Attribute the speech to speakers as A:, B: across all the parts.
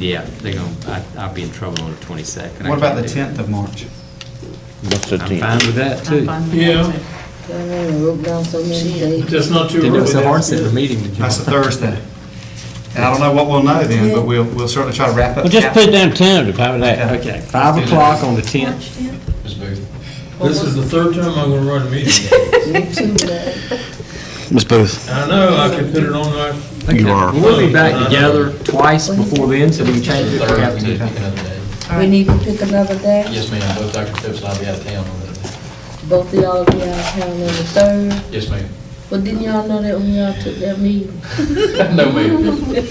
A: Yeah, they're gonna, I, I'll be in trouble on the twenty-second.
B: What about the 10th of March?
C: What's the
A: I'm
C: tenth?
A: fine with that
D: I'm
A: too.
D: fine with that,
E: Yeah.
D: too.
F: I mean, wrote down so many dates.
E: That's not too
A: Didn't
E: early.
A: know it was so hard setting
E: that's
A: the
E: good.
A: meeting to
B: That's a
A: jump.
B: Thursday. And I don't know what we'll know then, but we'll, we'll certainly try to wrap up.
C: Well, just put it down tentative, how about that?
A: Okay, five o'clock on the tenth.
D: March 10th?
E: This is the third time I'm gonna run a meeting.
F: Me too, Dad.
C: Ms. Booth?
E: I know, I could put it on there.
C: You are.
A: We'll be back together twice before then, so we can change it if we
G: Third,
A: have
G: we
A: to.
G: need to pick another day.
F: We need to pick another day.
G: Yes, ma'am, both Dr. Phipps and I'll be out of town on that day.
F: Both of y'all be out of town on the third.
G: Yes, ma'am.
F: But didn't y'all know that when y'all took that meeting?
G: No, ma'am. You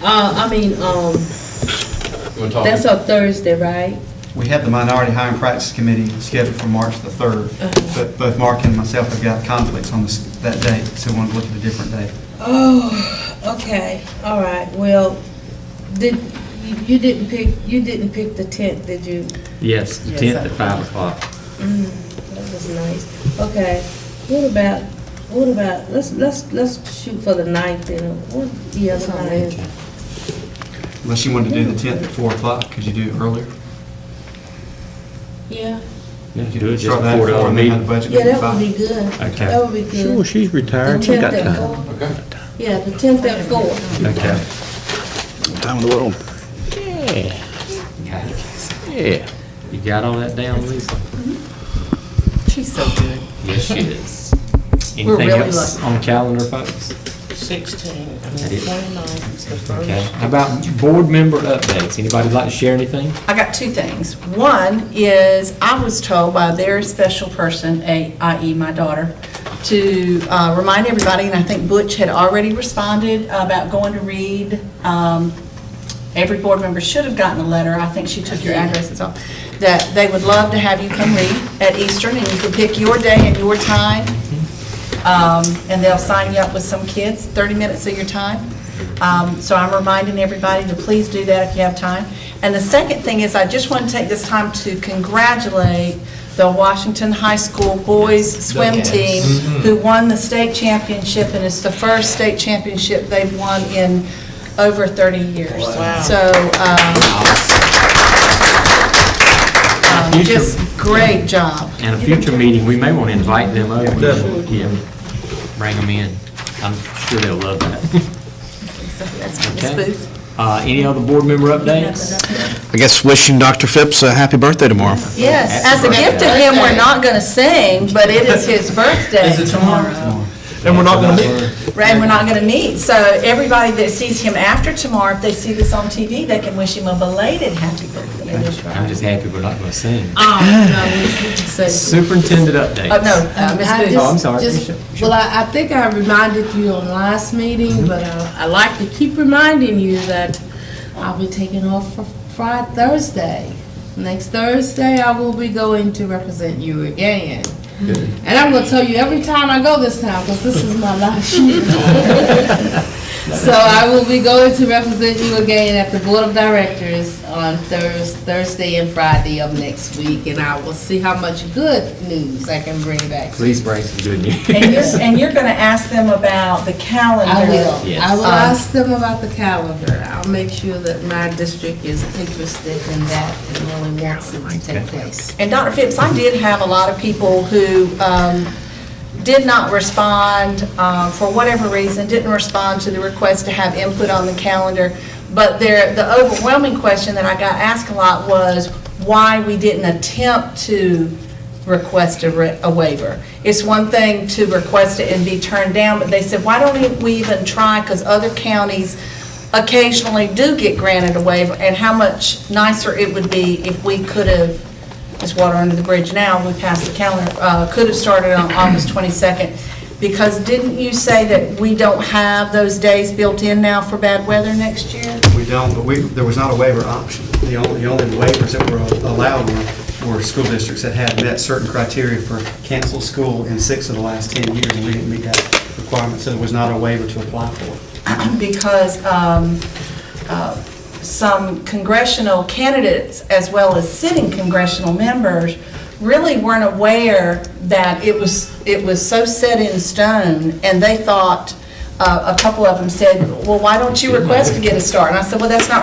F: Uh, I mean, um,
G: wanna talk?
F: that's a Thursday, right?
B: We have the Minority Hiring Practice Committee scheduled for March the 3rd,
A: Uh-huh.
B: but both Mark and myself have got conflicts on this, that date, so we want to look at a different date.
F: Oh, okay, all right, well, did, you- you didn't pick, you didn't pick the tenth, did you?
A: Yes, the
D: Yes,
A: tenth
D: I-
A: at five o'clock.
F: Mm, That was nice. Okay, what about, what about, let's, let's, let's shoot for the ninth then. What, yeah, the ninth.
B: Unless you wanted to do the 10th at 4 o'clock, could you do it earlier?
F: Yeah,
A: Yeah, do it just
B: Start that
A: before the
B: at
A: other
B: 4 and then
A: meeting.
B: have the budget
F: yeah,
B: meeting
F: that would
B: at
F: be good.
A: Okay.
F: That would be
C: Sure,
F: good.
C: she's
F: The
C: retired, she got
F: 10th at
C: time.
F: four.
G: Okay.
F: Yeah, the tenth at four.
A: Okay.
C: Time in the world. Yeah,
A: Okay.
C: yeah.
A: You got all that down, Lisa?
D: She's so good.
A: Yes, she is. Anything
D: We're really
A: else
D: lucky.
A: on calendar, folks?
D: 16,
A: That is-
D: 29 is the
A: Okay, how about board member updates? Anybody like to share anything?
D: I got two things. One is, I was told by a very special person, a- i.e. my daughter, to uh, remind everybody, and I think Butch had already responded about going to read. um, Every board member should have gotten a letter, I think she took your addresses off, that they would love to have you come read at Eastern, and you can pick your day and your time. Um, and they'll sign you up with some kids, 30 minutes of your time. Um, So I'm reminding everybody to please do that if you have time. And the second thing is, I just want to take this time to congratulate the Washington High School Boys Swim Team,
A: Mm-hmm.
D: who won the state championship, and it's the first state championship they've won in over 30 years. So, um, um,
A: Future-
D: just great job.
A: And a future meeting, we may want to invite them over. Yeah, Bring them in. I'm sure they'll love that.
D: So That's Ms.
A: Okay.
D: Booth.
A: Uh, any other board member updates?
C: I guess wishing Dr. Phipps a happy birthday tomorrow.
D: Yes, as
A: Happy
D: a gift to him, we're not going to sing, but it is his birthday.
E: Is it tomorrow?
C: And we're not gonna meet.
D: Right, we're not going to meet. So everybody that sees him after tomorrow, if they see this on TV, they can wish him a belated happy birthday.
A: I'm just happy we're not going to sing.
D: Um,
F: So-
A: Superintendent updates.
D: Oh, no, uh, Ms.
F: I
D: Booth.
A: Oh, I'm
F: just-
A: sorry.
F: just-
A: Sure,
F: Well, I, I think I reminded you on last
A: Mm-hmm.
F: meeting, but uh, I like to keep reminding you that I'll be taking off for Friday, Thursday. Next Thursday, I will be going to represent you again. And I'm gonna tell you every time I go this time, because this is my last year. So I will be going to represent you again at the Board of Directors on Thurs- Thursday and Friday of next week, and I will see how much good news I can bring back.
A: Please bring some good news.
D: And you're, and you're going to ask them about the calendar.
F: I will.
A: Yes.
F: I will
D: Um,
F: ask them about the calendar. I'll make sure that my district is interested in that and really wants it to take place.
D: And Dr. Phipps, I did have a lot of people who um, did not respond, um, for whatever reason, didn't respond to the request to have input on the calendar, but there, the overwhelming question that I got asked a lot was why we didn't attempt to request a re- a waiver. It's one thing to request it and be turned down, but they said, why don't e, we even try, because other counties occasionally do get granted a waiver, and how much nicer it would be if we could have it's water under the bridge now, we passed the calendar, uh, could have started on August 22nd, because didn't you say that we don't have those days built in now for bad weather next year?
B: 4. We don't, but we, there was not a waiver option. The only, the only waivers that were allowed were, were school districts that had met certain criteria for cancel school in six of the last 10 years, and we didn't meet that requirement, so there was not a waiver to apply for.
D: Because um, uh, some congressional candidates, as well as sitting congressional members, really weren't aware that it was, it was so set in stone, and they thought, uh, a couple of them said, well, why don't you request to get a star? And I said, well, that's not